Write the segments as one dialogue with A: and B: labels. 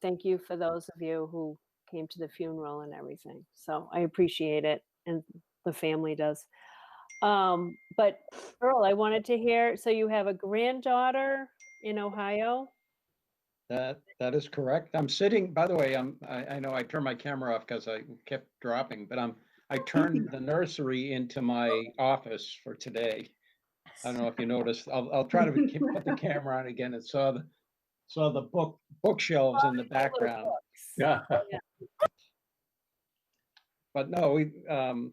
A: thank you for those of you who came to the funeral and everything. So I appreciate it, and the family does. Um, but Earl, I wanted to hear, so you have a granddaughter in Ohio?
B: That, that is correct. I'm sitting, by the way, I'm, I, I know I turned my camera off because I kept dropping, but I'm, I turned the nursery into my office for today. I don't know if you noticed, I'll, I'll try to keep- put the camera on again and saw the, saw the book, bookshelves in the background. Yeah. But no, we, um,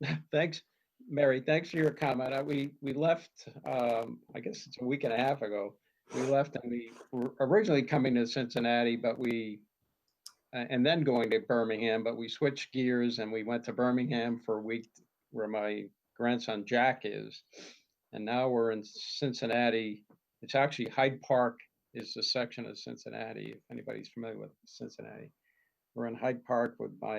B: thanks, Mary, thanks for your comment. Uh, We, we left, um, I guess it's a week and a half ago. We left and we were originally coming to Cincinnati, but we, a- and then going to Birmingham, but we switched gears and we went to Birmingham for a week where my grandson Jack is. And now we're in Cincinnati. It's actually Hyde Park is the section of Cincinnati, if anybody's familiar with Cincinnati. We're in Hyde Park with my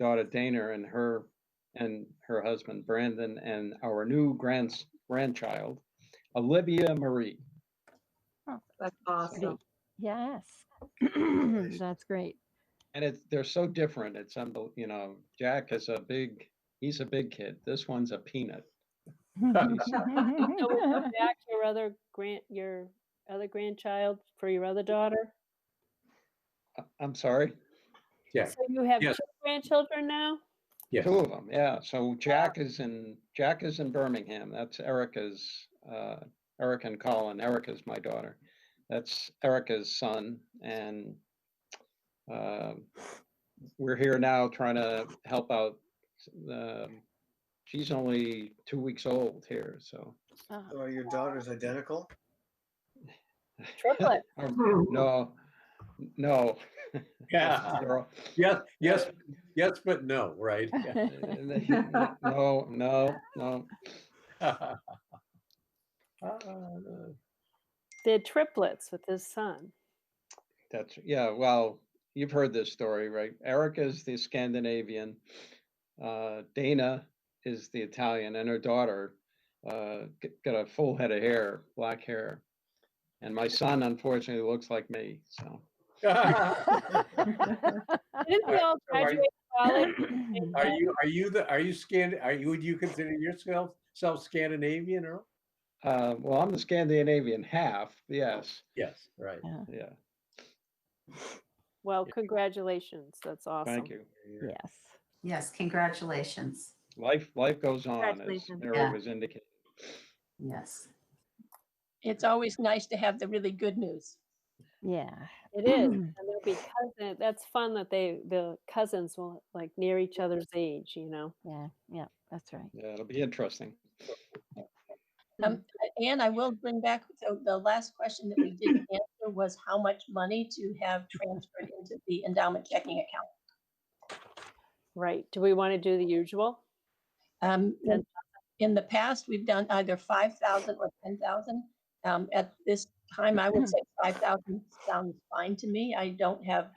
B: daughter Dana and her and her husband Brandon and our new grand grandchild, Olivia Marie.
C: That's awesome.
D: Yes. That's great.
B: And it's they're so different. It's unbel- you know, Jack is a big he's a big kid. This one's a peanut.
A: So we'll come back to your other grand, your other grandchild for your other daughter?
B: I- I'm sorry.
E: Yeah.
A: So you have two
E: Yes.
A: grandchildren now?
E: Yes.
B: Two of them, yeah. So Jack is in Jack is in Birmingham. That's Erica's uh Eric and Colin. Erica's my daughter. That's Erica's son and um we're here now trying to help out um she's only two weeks old here, so
D: Oh,
F: So are your daughters identical?
A: Oh, Triplet.
B: no, no.
E: Yeah,
B: They're all-
E: yes, yes, yes, but no, right?
B: No, no, no.
E: Ah,
A: They're triplets with his son.
B: That's, yeah, well, you've heard this story, right? Erica's the Scandinavian, uh, Dana is the Italian, and her daughter, uh, g- got a full head of hair, black hair. And my son unfortunately looks like me, so.
A: Didn't we all
E: Are you-
A: graduate college?
E: Are you, are you the, are you Scan, are you, would you consider yourself self Scandinavian Earl?
B: Uh, well, I'm the Scandinavian half, yes,
E: Yes, right.
B: yeah,
A: Well, congratulations. That's awesome.
B: thank you.
D: Yes.
C: Yes, congratulations.
B: Life, life goes on, as
A: Congratulations.
B: Mary
C: Yeah.
B: was indicating.
C: Yes.
G: It's always nice to have the really good news.
D: Yeah.
A: It is, and they'll be cousin. That's fun that they the cousins will like near each other's age. You know,
D: Yeah. Yeah. That's right.
B: Yeah, it'll be interesting.
G: Um, and I will bring back, so the last question that we didn't answer was how much money to have transferred into the endowment checking account.
A: right? Do we want to do the usual?
G: Um,
A: Yeah.
G: in the past, we've done either five thousand or ten thousand. Um, at this time, I would say five thousand sounds fine to me. I don't have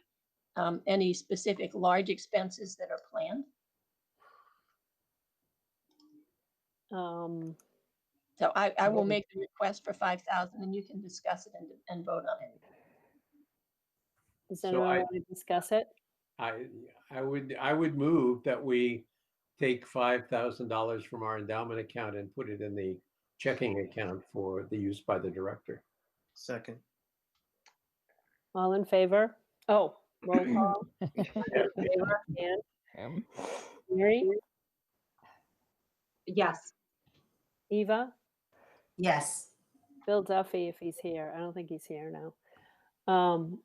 G: um, any specific large expenses that are planned.
A: Um,
G: So I, I will make the request for five thousand and you can discuss it and, and vote on it.
A: does
E: So
A: anyone
E: I-
A: want to discuss it?
E: I, I would, I would move that we take five thousand dollars from our endowment account and put it in the checking account for the use by the director.
F: Second.
A: All in favor? Oh, roll call. Favor, Ann,
D: Um,
A: Mary,
H: Yes,
A: Eva,
C: Yes.
A: Bill Duffy, if he's here. I don't think he's here now. Um,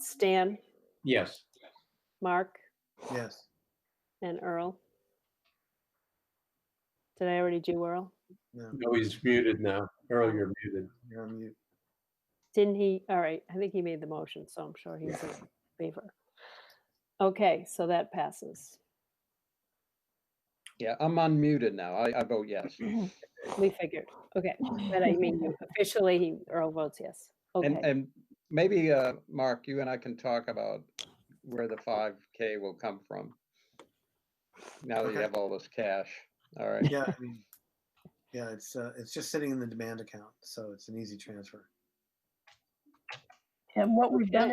A: Stan,
E: Yes.
A: Mark,
F: Yes.
A: and Earl. Did I already do Earl?
F: No,
E: No, he's muted now. Earl, you're muted.
F: you're on mute.
A: Didn't he? All right, I think he made the motion, so I'm sure he's in favor. Okay, so that passes.
B: Yeah, I'm unmuted now. I, I vote yes.
A: We figured. Okay, but I mean, you- officially, he Earl votes yes.
B: And,
A: Okay,
B: and maybe, uh, Mark, you and I can talk about where the five K will come from. Now that you
F: Okay.
B: have all this cash, all right,
F: Yeah, I mean, yeah, it's, uh, it's just sitting in the demand account, so it's an easy transfer.
G: And what we've done